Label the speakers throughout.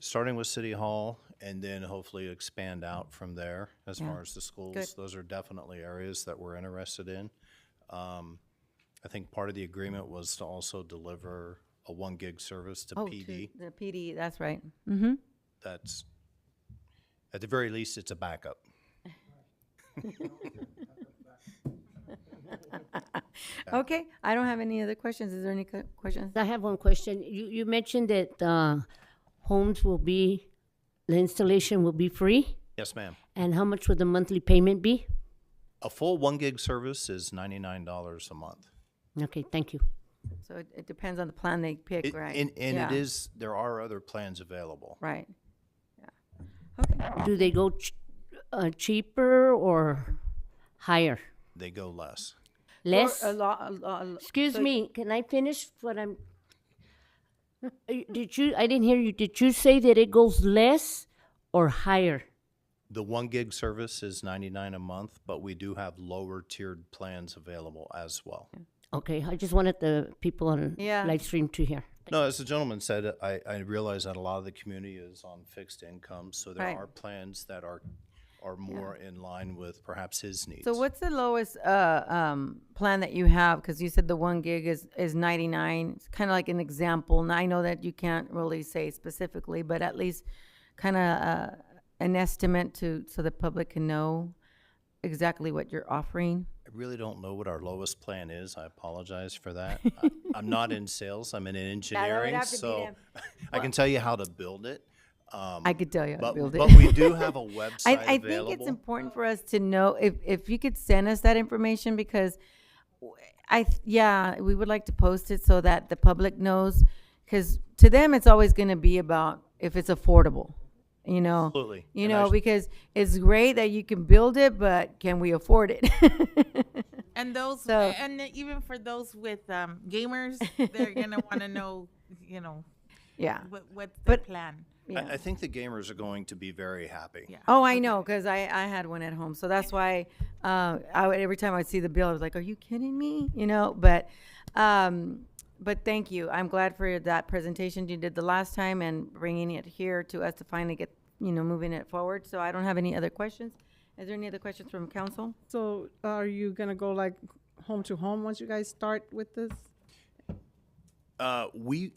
Speaker 1: starting with City Hall and then hopefully expand out from there as far as the schools. Those are definitely areas that we're interested in. Um, I think part of the agreement was to also deliver a one gig service to
Speaker 2: Oh, to
Speaker 1: PD.
Speaker 2: The PD, that's right.
Speaker 1: That's, at the very least, it's a backup.
Speaker 2: Okay, I don't have any other questions. Is there any co- questions?
Speaker 3: I have one question. You, you mentioned that uh, homes will be, the installation will be free,
Speaker 1: Yes, ma'am.
Speaker 3: and how much would the monthly payment be?
Speaker 1: A full one gig service is ninety-nine dollars a month.
Speaker 3: Okay, thank you.
Speaker 2: So it, it depends on the plan they pick,
Speaker 1: It-
Speaker 2: right?
Speaker 1: And, and
Speaker 2: Yeah,
Speaker 1: it is, there are other plans available.
Speaker 2: Right. Yeah. Okay,
Speaker 3: Do they go ch- uh, cheaper or higher?
Speaker 1: They go less.
Speaker 3: Less?
Speaker 2: Or A lot, a lot, a lo-
Speaker 3: Excuse me, can I finish what I'm? Uh, Did you, I didn't hear you. Did you say that it goes less or higher?
Speaker 1: The one gig service is ninety-nine a month, but we do have lower tiered plans available as well.
Speaker 3: Okay, I just wanted the people on
Speaker 2: Yeah.
Speaker 3: live stream to hear.
Speaker 1: No, as the gentleman said, I, I realize that a lot of the community is on fixed income, so there
Speaker 2: Right.
Speaker 1: are plans that are, are more in line with perhaps his needs.
Speaker 2: so what's the lowest, uh, um, plan that you have? Cause you said the one gig is, is ninety-nine. It's kinda like an example. And I know that you can't really say specifically, but at least kinda, uh, an estimate to, so the public can know exactly what you're offering.
Speaker 1: I really don't know what our lowest plan is. I apologize for that. I- I'm not in sales, I'm in engineering,
Speaker 2: have to be
Speaker 1: so
Speaker 2: them.
Speaker 1: I can tell you how to build it.
Speaker 2: I could tell you how to
Speaker 1: Um, But,
Speaker 2: build it.
Speaker 1: but we do have a website
Speaker 2: I, I think it's
Speaker 1: available.
Speaker 2: important for us to know if, if you could send us that information because w- I, th- yeah, we would like to post it so that the public knows. Cause to them, it's always gonna be about if it's affordable, you know?
Speaker 1: Absolutely.
Speaker 2: You
Speaker 1: And I
Speaker 2: know,
Speaker 1: sh-
Speaker 2: because it's great that you can build it, but can we afford it?
Speaker 4: And those,
Speaker 2: So-
Speaker 4: and then even for those with um, gamers, they're gonna want to know, you know,
Speaker 2: Yeah.
Speaker 4: what what's the
Speaker 2: But-
Speaker 4: plan.
Speaker 1: I, I think the gamers are going to be very happy.
Speaker 4: Yeah.
Speaker 2: Oh, I know, cause I, I had one at home, so that's why, uh, I would, every time I'd see the bill, I was like, are you kidding me? You know, but, um, but thank you. I'm glad for that presentation you did the last time and bringing it here to us to finally get, you know, moving it forward. So I don't have any other questions. Is there any other questions from council?
Speaker 5: So uh, are you gonna go like home to home once you guys start with this?
Speaker 1: Uh, we,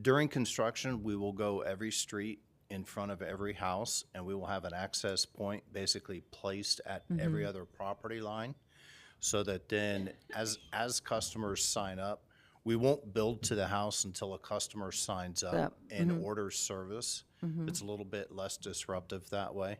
Speaker 1: during construction, we will go every street in front of every house, and we will have an access point basically placed at every other property line, so that then, as, as customers sign up, we won't build to the house until a customer signs up
Speaker 2: Up,
Speaker 1: and orders service.
Speaker 2: Mm-hmm.
Speaker 1: It's a little bit less disruptive that way.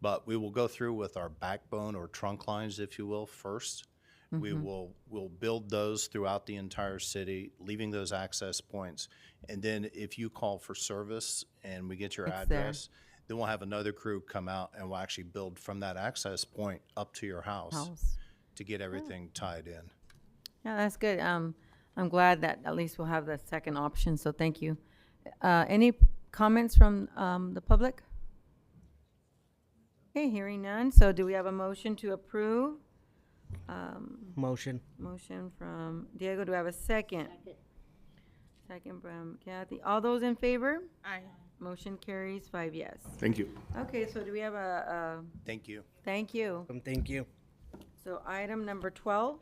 Speaker 1: But we will go through with our backbone or trunk lines, if you will, first. We
Speaker 2: Mm-hmm.
Speaker 1: will, we'll build those throughout the entire city, leaving those access points. And then if you call for service and we get your
Speaker 2: It's there.
Speaker 1: address, then we'll have another crew come out and we'll actually build from that access point up to your house
Speaker 2: House.
Speaker 1: to get everything tied in.
Speaker 2: Yeah, that's good. Um, I'm glad that at least we'll have the second option, so thank you. Uh, any comments from, um, the public? Okay, hearing none, so do we have a motion to approve?
Speaker 6: Motion.
Speaker 2: Motion from Diego, do I have a second? Second from Kathy. All those in favor?
Speaker 4: I
Speaker 2: Motion carries five yes.
Speaker 7: Thank you.
Speaker 2: Okay, so do we have a, a,
Speaker 1: Thank you.
Speaker 2: thank you.
Speaker 6: Um, thank you.
Speaker 2: So item number twelve.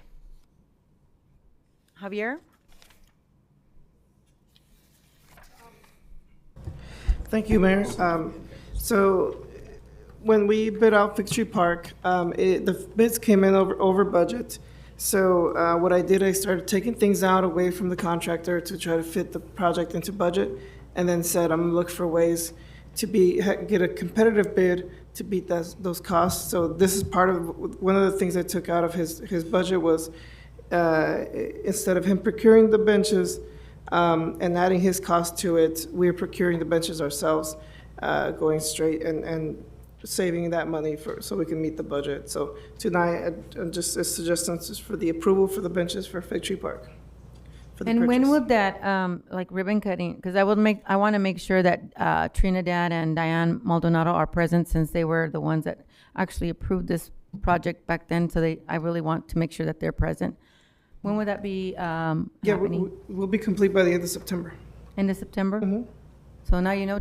Speaker 2: Javier?
Speaker 8: Thank you, Mayor. Um, So when we bid out Victory Park, um, it- the bids came in over over budget. So uh, what I did, I started taking things out away from the contractor to try to fit the project into budget, and then said, I'm going to look for ways to be, ha- get a competitive bid to beat those those costs. So this is part of, one of the things I took out of his his budget was uh, instead of him procuring the benches um, and adding his cost to it, we're procuring the benches ourselves, uh, going straight and, and saving that money for, so we can meet the budget. So tonight, uh, just a suggestion is for the approval for the benches for Fig Tree Park. for the
Speaker 2: And when
Speaker 8: purchase.
Speaker 2: would that, um, like ribbon cutting, because I will make, I want to make sure that, uh, Trinidad and Diane Maldonado are present since they were the ones that actually approved this project back then, so they, I really want to make sure that they're present. When would that be, um,
Speaker 8: Yeah, we-
Speaker 2: happening?
Speaker 8: we- we'll be complete by the end of September.
Speaker 2: End of September? So now you know